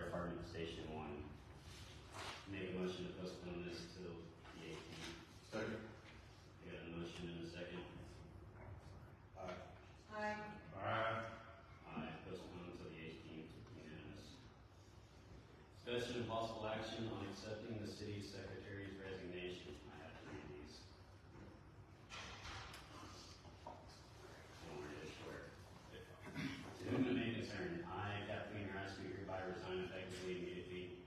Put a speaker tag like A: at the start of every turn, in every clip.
A: Station One. Make a motion to postpone this till the eighteenth.
B: Second.
A: We got a motion and a second.
B: Aye.
C: Aye.
B: Aye.
A: Aye, postpone until the eighteenth, unanimous. Discussion and possible action on accepting the city secretary's resignation. I have to read these. Don't worry, I swear. To whom it may concern, I, Kathleen Rice, do hereby resign effectively immediately.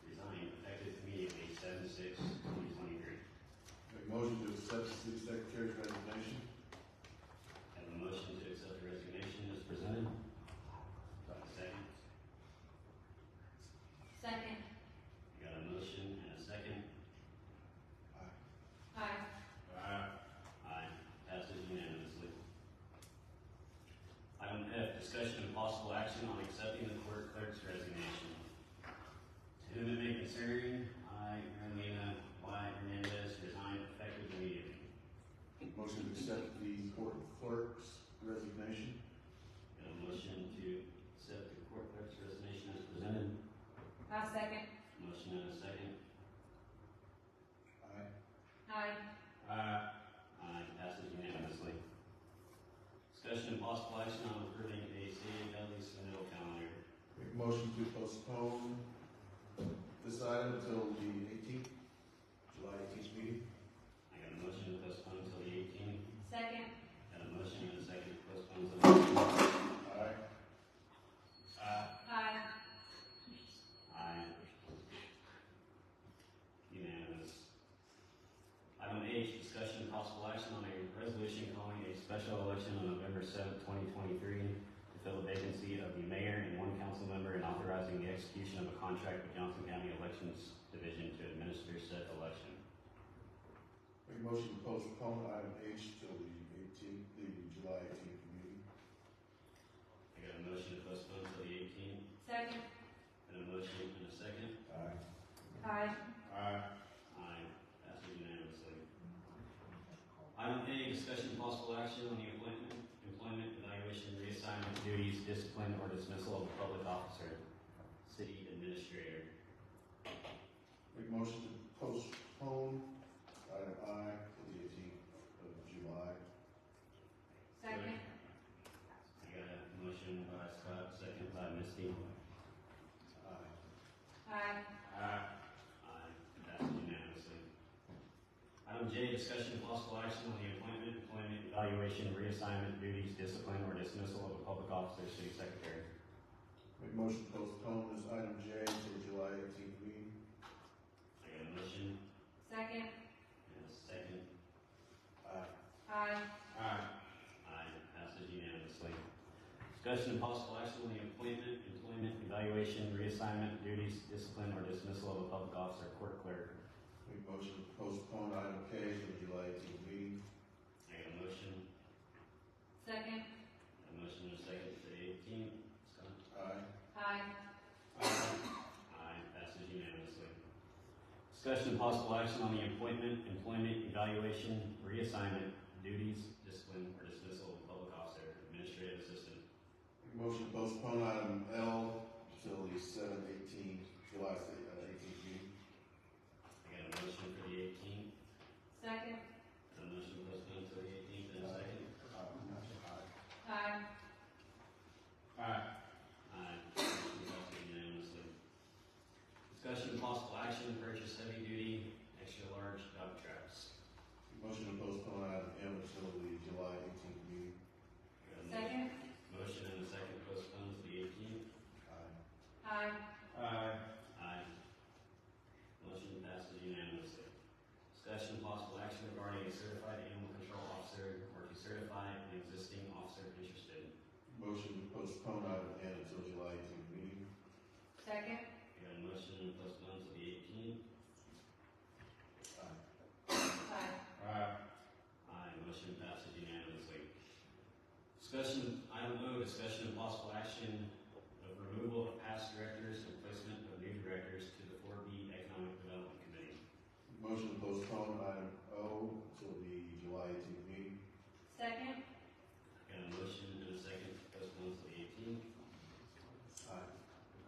A: Resign effective immediately, seven six twenty twenty-three.
B: Make motion to accept the city secretary's resignation.
A: Have a motion to accept the resignation as presented. Do I have a second?
C: Second.
A: We got a motion and a second.
C: Aye.
B: Aye.
A: Aye, passes unanimously. Item F, discussion and possible action on accepting the court clerk's resignation. To whom it may concern, I, Carolina Y. Hernandez, resign effective immediately.
B: Motion to accept the court clerk's resignation.
A: Got a motion to accept the court clerk's resignation as presented.
C: I'll second.
A: Motion and a second.
B: Aye.
C: Aye.
A: Aye. Aye, passes unanimously. Discussion and possible action on approving a city of Valley Smithville calendar.
B: Make motion to postpone this item until the eighteenth, July eighteenth meeting.
A: I got a motion to postpone until the eighteenth.
C: Second.
A: Got a motion and a second to postpone the Uh, vote.
B: Aye.
A: Aye.
C: Aye.
A: Aye. Unanimous. Item H, discussion and possible action on a resolution calling a special election on November seventh, twenty twenty-three to fill the vacancy of the mayor and one council member and authorizing the execution of a contract with Johnson County Elections Division to administer said election.
B: Make motion to postpone item H till the eighteenth, the July eighteenth meeting.
A: I got a motion to postpone till the eighteenth,
C: Second.
A: and a motion and a second.
B: Aye.
C: Aye.
B: Aye.
A: Aye, passes unanimously. Item A, discussion and possible action on the appointment, employment, evaluation, reassignment, duties, discipline, or dismissal of a public officer, city administrator.
B: Make motion to postpone item I till the eighteenth of July.
C: Second.
A: I got a motion by Scott, second by Misty.
B: Aye.
C: Aye.
A: Aye. Aye, passes unanimously. Item J, discussion and possible action on the appointment, employment, evaluation, reassignment, duties, discipline, or dismissal of a public officer, city secretary.
B: Make motion to postpone this item J till July eighteenth meeting.
A: I got a motion
C: Second.
A: and a second
B: Aye.
C: Aye.
B: Aye.
A: Aye, passes unanimously. Discussion and possible action on the appointment, employment, evaluation, reassignment, duties, discipline, or dismissal of a public officer, court clerk.
B: Make motion to postpone item K till the July eighteenth meeting.
A: I got a motion,
C: Second.
A: a motion and a second for the eighteenth. Scott?
B: Aye.
C: Aye.
A: Aye, passes unanimously. Discussion and possible action on the appointment, employment, evaluation, reassignment, duties, discipline, or dismissal of a public officer, administrative assistant.
B: Make motion to postpone item L till the seven eighteen, July eighteenth meeting.
A: I got a motion for the eighteenth,
C: Second.
A: a motion postponed until the eighteenth and a second.
B: Uh, Aye.
C: Aye.
B: Aye.
A: Aye, motion adopted unanimously. Discussion of possible action to purchase heavy duty, extra large dump trucks.
B: Motion to postpone item M until the July eighteenth meeting.
A: Got a mo-
C: Second.
A: Motion and a second postponed to the eighteenth.
B: Aye.
C: Aye.
B: Aye.
A: Aye. Motion passes unanimously. Discussion of possible action regarding a certified animal control officer or to certify an existing officer interested.
B: Motion to postpone item N until July eighteenth meeting.
C: Second.
A: Got a motion to postpone to the eighteenth.
B: Aye.
C: Aye.
B: Aye.
A: Aye, motion passes unanimously. Discussion of